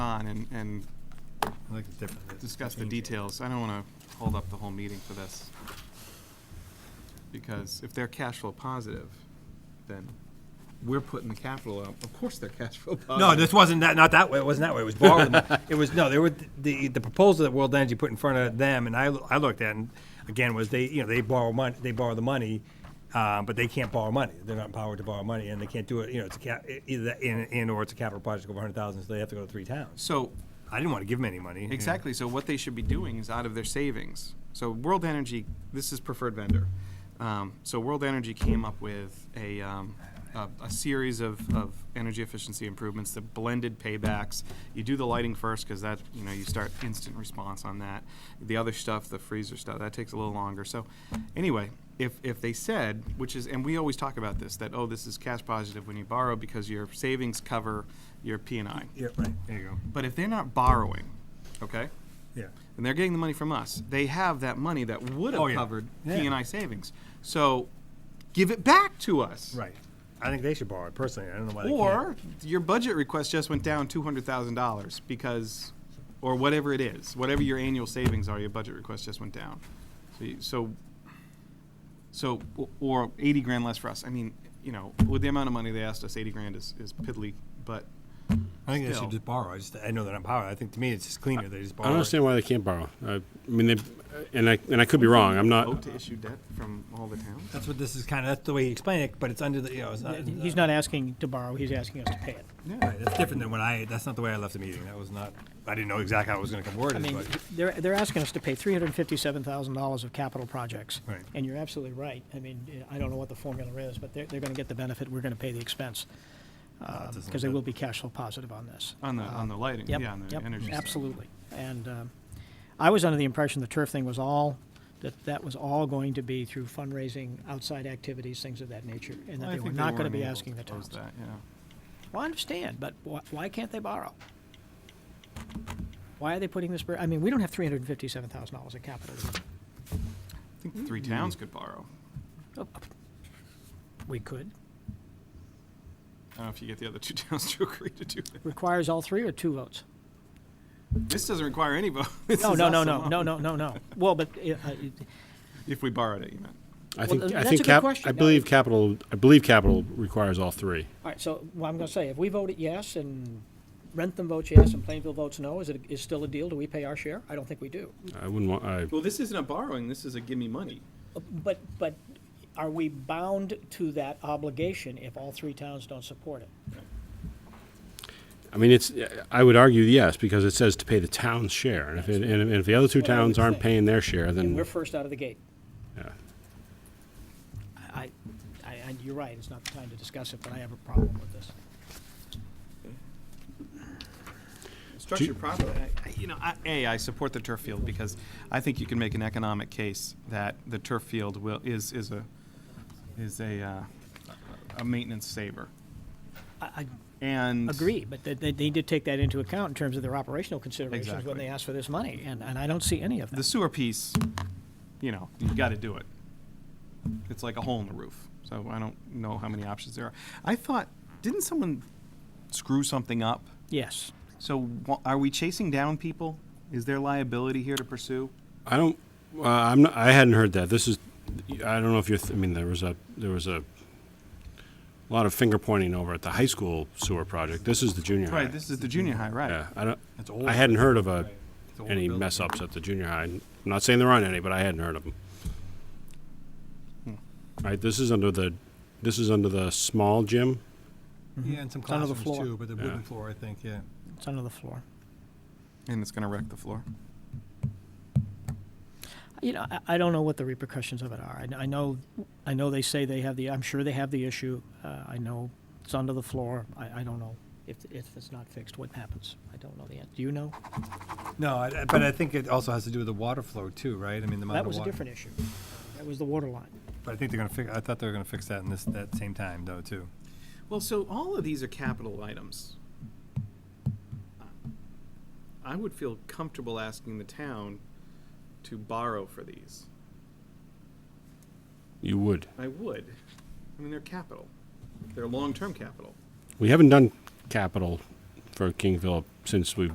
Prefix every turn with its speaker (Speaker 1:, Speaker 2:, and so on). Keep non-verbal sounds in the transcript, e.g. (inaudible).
Speaker 1: on and, and
Speaker 2: I think it's different.
Speaker 1: discuss the
Speaker 2: Change it.
Speaker 1: details. I don't want to hold up the whole meeting for this. Because if they're cash flow positive, then we're putting the capital up. Of course they're cash flow positive.
Speaker 2: No, this wasn't that, not that way, it wasn't that way,
Speaker 1: (laughs)
Speaker 2: it was borrowed. It was, no, there were, the, the proposal that World Energy put in front of them, and I, I looked at, and again, was they, you know, they borrow money, they borrow the money, uh, but they can't borrow money, they're not empowered to borrow money, and they can't do it, you know, it's a cap, e- either, that and, and or it's a capital project over a hundred thousand, so they have to go to three towns.
Speaker 1: So,
Speaker 2: I didn't wanna give them any money. and-
Speaker 1: exactly, so what they should be doing is out of their savings. So World Energy, this is preferred vendor. Um, So World Energy came up with a, um, a, a series of, of energy efficiency improvements, the blended paybacks. You do the lighting first, because that, you know, you start instant response on that. The other stuff, the freezer stuff, that takes a little longer. So, anyway, if, if they said, which is, and we always talk about this, that, oh, this is cash positive when you borrow because your savings cover your P and I.
Speaker 2: Yeah, right, there you go,
Speaker 1: But if they're not borrowing, okay,
Speaker 2: yeah.
Speaker 1: and they're getting the money from us, they have that money that would have
Speaker 2: Oh, yeah.
Speaker 1: covered
Speaker 2: Yeah.
Speaker 1: P and I savings. So give it back to us.
Speaker 2: Right. I think they should borrow it personally. I don't know why they can't.
Speaker 1: Or your budget request just went down two hundred thousand dollars because, or whatever it is, whatever your annual savings are, your budget request just went down. So, you, so, so, o- or eighty grand less for us. I mean, you know, with the amount of money they asked us, eighty grand is, is piddly, but
Speaker 2: I think they
Speaker 1: still.
Speaker 2: should just borrow. I just I know they're not power. I think to me it's just cleaner. They just
Speaker 3: I
Speaker 2: borrow.
Speaker 3: don't understand why they can't borrow. I, I mean, they, and I, and I could be wrong. I'm
Speaker 1: vote
Speaker 3: not.
Speaker 1: to issue debt from all the towns.
Speaker 2: That's what this is kind of. That's the way he explained it, but it's under the you know. It's not,
Speaker 4: He's not asking to borrow, he's asking us to pay it.
Speaker 1: Yeah.
Speaker 2: Right, that's different than when I. That's not the way I left the meeting. That was not. I didn't know exactly how it was going to come worded.
Speaker 4: I mean,
Speaker 2: but
Speaker 4: they're, they're asking us to pay three hundred and fifty-seven thousand dollars of capital projects.
Speaker 2: Right.
Speaker 4: And you're absolutely right. I mean, I don't know what the formula is, but they're, they're gonna get the benefit, we're gonna pay the expense.
Speaker 2: doesn't
Speaker 4: Because they
Speaker 2: look
Speaker 4: will
Speaker 2: good.
Speaker 4: be cash flow positive on this. Uh,
Speaker 1: On the, on the lighting,
Speaker 4: Yep,
Speaker 1: yeah, on the
Speaker 4: yep,
Speaker 1: energy side.
Speaker 4: absolutely. And um, I was under the impression the turf thing was all, that that was all going to be through fundraising, outside activities, things of that nature, and that
Speaker 1: I
Speaker 4: they were
Speaker 1: think
Speaker 4: not gonna be
Speaker 1: enabled
Speaker 4: asking the
Speaker 1: close
Speaker 4: towns.
Speaker 1: that, yeah.
Speaker 4: Well, I understand, but wh- why can't they borrow? Why are they putting this, bur- I mean, we don't have three hundred and fifty-seven thousand dollars in capital.
Speaker 1: I
Speaker 4: Mm-hmm.
Speaker 1: think three towns could borrow.
Speaker 4: Oh, We could.
Speaker 1: I don't know if you get the other two (laughs) towns to agree to do it.
Speaker 4: Requires all three or two votes?
Speaker 1: This doesn't require any vote. (laughs) This
Speaker 4: No,
Speaker 1: is
Speaker 4: no,
Speaker 1: us
Speaker 4: no, no,
Speaker 1: alone.
Speaker 4: no, no, no, no. Well, but, uh, uh, it-
Speaker 1: If we borrowed it, you meant.
Speaker 3: I think,
Speaker 4: th-
Speaker 3: I
Speaker 4: that's a
Speaker 3: think
Speaker 4: good
Speaker 3: cap,
Speaker 4: question.
Speaker 3: I
Speaker 4: No,
Speaker 3: believe
Speaker 4: it-
Speaker 3: capital, I believe capital requires all three.
Speaker 4: all right, so, well, I'm gonna say, if we voted yes and Rentham votes yes and Plainville votes no, is it, is still a deal? Do we pay our share? I don't think we do.
Speaker 3: I wouldn't want, I,
Speaker 1: Well, this isn't a borrowing, this is a gimme money.
Speaker 4: But, but are we bound to that obligation if all three towns don't support it?
Speaker 3: I mean, it's, I would argue yes, because it says to pay the town's share. And if, it- and and if the other two
Speaker 4: That's what I
Speaker 3: towns
Speaker 4: would
Speaker 3: aren't
Speaker 4: say.
Speaker 3: paying their share,
Speaker 4: And we're
Speaker 3: then,
Speaker 4: first out of the gate.
Speaker 3: yeah.
Speaker 4: I, I, and you're right, it's not the time to discuss it, but I have a problem with this.
Speaker 1: Structured properly. I- You know, I, A, I support the turf field because I think you can make an economic case that the turf field will, is, is a, is a, uh, a maintenance saver.
Speaker 4: I, I
Speaker 1: And.
Speaker 4: agree, but they, they need to take that into account in terms of their operational considerations when
Speaker 1: Exactly.
Speaker 4: they ask for this money, and, and I don't see any of
Speaker 1: The
Speaker 4: that.
Speaker 1: sewer piece, you know, you gotta do it. It's like a hole in the roof, so I don't know how many options there are. I thought, didn't someone screw something up?
Speaker 4: Yes,
Speaker 1: So wha- are we chasing down people? Is there liability here to pursue?
Speaker 3: I don't. Uh, I'm not. I hadn't heard that. This is. I don't know if you're. Th- I mean, there was a there was a lot of finger pointing over at the high school sewer project. This is the junior high.
Speaker 1: Right, this is the junior high, right?
Speaker 3: yeah, I don't.
Speaker 2: It's old.
Speaker 3: I hadn't heard of a
Speaker 2: It's an older
Speaker 3: any
Speaker 2: building.
Speaker 3: mess ups at the junior high. I'm not saying there aren't any, but I hadn't heard of them.
Speaker 2: Hmm.
Speaker 3: Right. This is under the. This is under the small gym.
Speaker 2: yeah, and some
Speaker 4: It's under the
Speaker 2: classrooms
Speaker 4: floor.
Speaker 2: too, but the wooden
Speaker 3: Yeah.
Speaker 2: floor, I think. Yeah.
Speaker 4: it's under the floor.
Speaker 1: And it's gonna wreck the floor.
Speaker 4: You know, I, I don't know what the repercussions of it are. I, kn- I know, I know they say they have the, I'm sure they have the issue. Uh, I know it's under the floor. I, I don't know if, if it's not fixed, what happens. I don't know the answer. Do you know?
Speaker 2: No, I, I- but I think it also has to do with the water flow too, right? I mean, the amount of
Speaker 4: That was a
Speaker 2: water.
Speaker 4: different issue. That was the water line.
Speaker 2: But I think they're going to fix. I thought they were going to fix that in this that same time though too.
Speaker 1: Well, so all of these are capital items. I would feel comfortable asking the town to borrow for these.
Speaker 3: You would.
Speaker 1: I would. I mean, they're capital. They're long-term capital.
Speaker 3: We haven't done capital for King Philip since we